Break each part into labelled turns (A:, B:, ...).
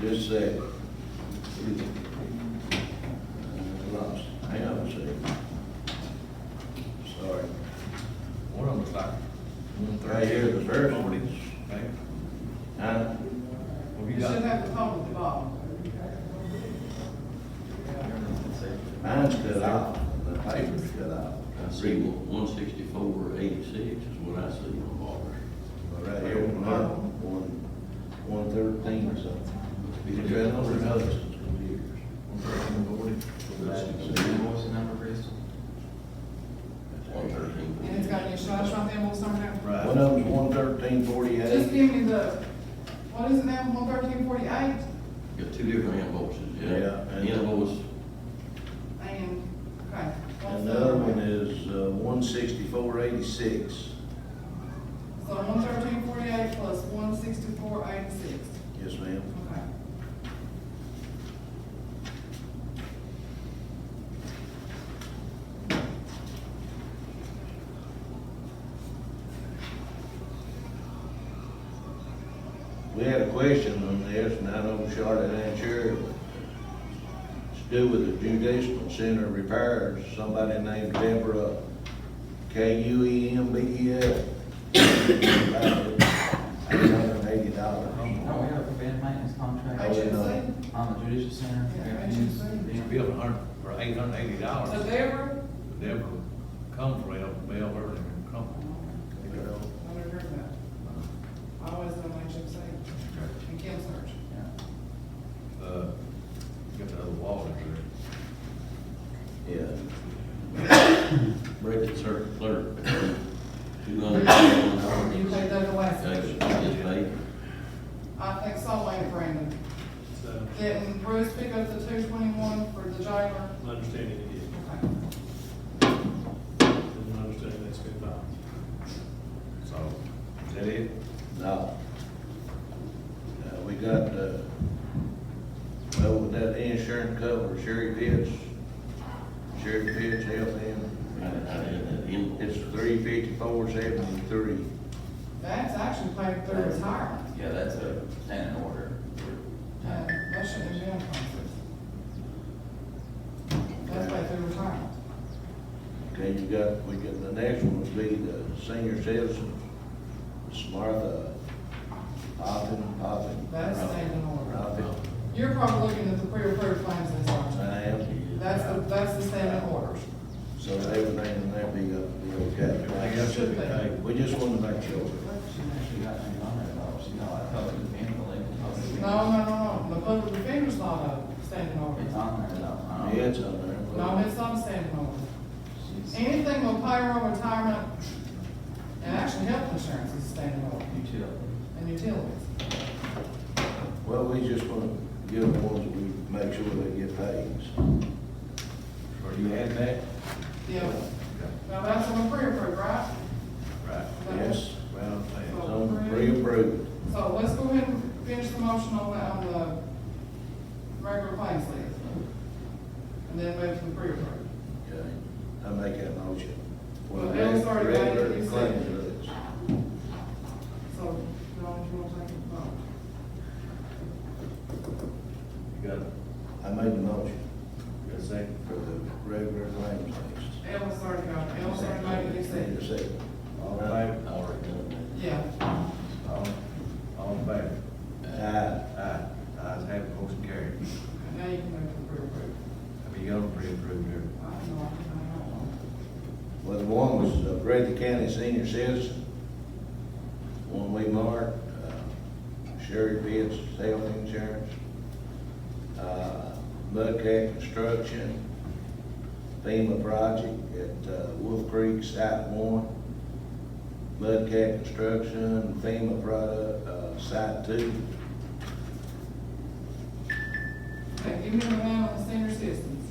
A: just said. Uh, Lost, hang on a second. Sorry.
B: One of them's like, one thirty.
A: Right here, the first one is,
B: Okay.
A: huh?
B: Well,
C: You
B: you
C: should
B: got.
C: have the phone at the bottom.
A: Mine's cut off, the paper's cut off.
D: I see one sixty-four eighty-six is what I see on Walker.
A: But Right here, one, one, one thirteen or something. Been trying over another since two years.
D: One thirteen.
C: And it's got your shots right there, what's on that?
A: One of them's one thirteen
C: Just
A: forty-eight.
C: give me the, what is it now, one thirteen forty-eight?
D: Got two different invoices,
A: Yeah,
D: yeah.
A: and-
D: Invoice,
C: And, okay. what's
A: And the other one is, uh, one sixty-four eighty-six.
C: So one thirteen forty-eight plus one sixty-four eighty-six,
A: Yes, ma'am.
C: okay.
A: We had a question on this, and I know Charlotte answered. it. It's due with the judicial center repairs, somebody named Deborah K U E M B E L. Eight hundred and eighty dollars.
E: Don't Oh, we have a preventive maintenance
A: I
E: contract
A: would know.
C: HMC,
E: on the judicial center?
C: Oh, Yeah, HMC.
B: You billed a hundred, or eight hundred eighty
C: so
B: dollars,
C: there,
B: never come for it, bail earlier and come.
C: Oh, I never heard that. I always done HMC and Kim Search.
E: Yeah.
B: Uh, get the other wall in there.
A: Yeah.
D: Break it, sir, clerk. Two hundred and one
C: You paid that the last
D: dollars.
C: one. I think so, ain't Brandon.
F: So,
C: Didn't Bruce pick up the two twenty-one for the jailer?
F: my understanding it is,
C: Okay.
F: and my understanding that's been filed.
B: So, is that it?
A: No. Uh, we got, uh, well, with that insurance cover, Sherry Pitts, Sherry Pitts, health
D: I, I had that
A: and,
D: invoice.
A: it's three fifty-four seventy-three.
C: That's actually paid through retirement.
E: Yeah, that's a standing order.
C: Uh, That shouldn't have been a conflict. That's paid through retirement.
A: Okay, you got, we got, the next one would be the senior citizen, Smartha, Poppin, Poppin.
C: That's standing order.
A: Poppin,
C: You're probably looking at the pre-approved claims this
A: I
C: time.
A: am.
C: That's the, that's the standing order.
A: So everything in there be, uh, be
B: Everything
A: okay.
B: else should be paid.
A: We just wanted to make sure.
E: She actually got me on that, though. She know I told you, being believable.
C: No, no, no, no, the public defender's not a standing
E: It's
C: order.
E: on there, though. I don't know.
A: Yeah, it's on there. but-
C: No, it's not a standing order.
E: She's-
C: Anything on payroll, retirement, and actually health insurance is a standing order,
E: Utility.
C: and utilities.
A: Well, we just want to give the ones that we make sure they get paid.
B: Or you had that?
C: Yeah,
B: Okay.
C: now that's on the pre-approved, right?
B: Right.
A: Yes, well, it's on
C: Approved.
A: pre-approved.
C: So let's go ahead and finish the motion on the, on the regular claims list. And then move to the pre-approved.
A: Okay, I make that motion.
C: Well, Bill's already made it,
A: Regular
C: you said.
A: claims list.
C: So, Dawn, you want to take a vote?
B: You got, you
A: I made the motion
B: got a second?
A: for the regular claims list.
C: Ellis already got, it. Ellis already made it, he said.
A: Need a second.
B: All in favor?
D: I already done
C: Yeah,
B: All, all in favor?
A: Aye.
B: Aye. Ayes have it, motion carried.
C: now you can move to the pre-approved.
B: I mean, you got them pre-approved here.
C: I don't know, I don't know.
A: Well, the one was uh, Grady County Senior Citizen, one we marked, uh, Sherry Pitts, health insurance, uh, Mudcat Construction, FEMA project at uh, Wolf Creek Site One, Mudcat Construction, FEMA product, uh, Site Two,
C: Okay, give me the man on the senior citizens.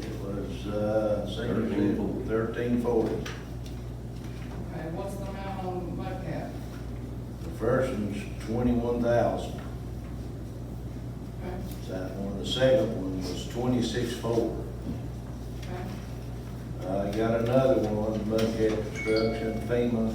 A: it was, uh, senior citizen,
D: 1340.
A: thirteen forty.
C: Okay, what's the amount on Mudcat?
A: The first one's twenty-one thousand.
C: Okay,
A: That one, the second one was twenty-six four.
C: okay.
A: Uh, you got another one, Buckhead Construction, FEMA,